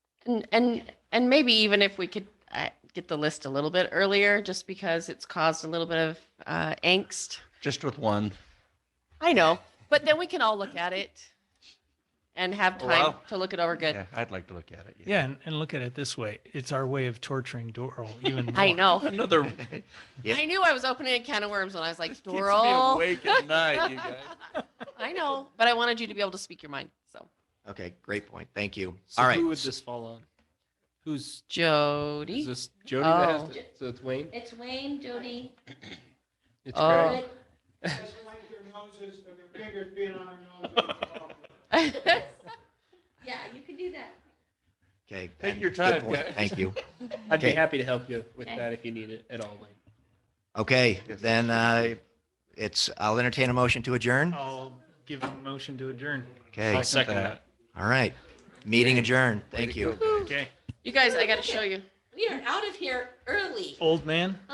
And, and, and maybe even if we could uh, get the list a little bit earlier, just because it's caused a little bit of uh, angst. Just with one. I know, but then we can all look at it and have Oh, time wow. to look it over good. Yeah, I'd like to look at it. Yeah, and, and look at it this way. It's our way of torturing Doral even more. I know. Another. Yeah. I knew I was opening a can of worms when I was like, Keeps me Doral. Awake at night, you guys. I know, but I wanted you to be able to speak your mind. So Okay, great point. Thank you. So All right. Who would this fall on? Who's is Jody, this Jody that has Oh. to, so it's Wayne? It's Wayne, Jody, It's Oh. Greg. Rick, Just wipe your noses, and your fingers being on our noses. yeah, you can do that. Okay. Take Ben, your good time, point. guys. Thank you. I'd be Okay. happy to help you with Okay. that if you need it at all, Wayne. Okay, Yes. then uh, it's, I'll entertain a motion to adjourn. I'll give a motion to adjourn. Okay, I'll second that. all right. Meeting adjourned. Thank you. Okay. you guys, I got to show you. We are out of here early. Old man?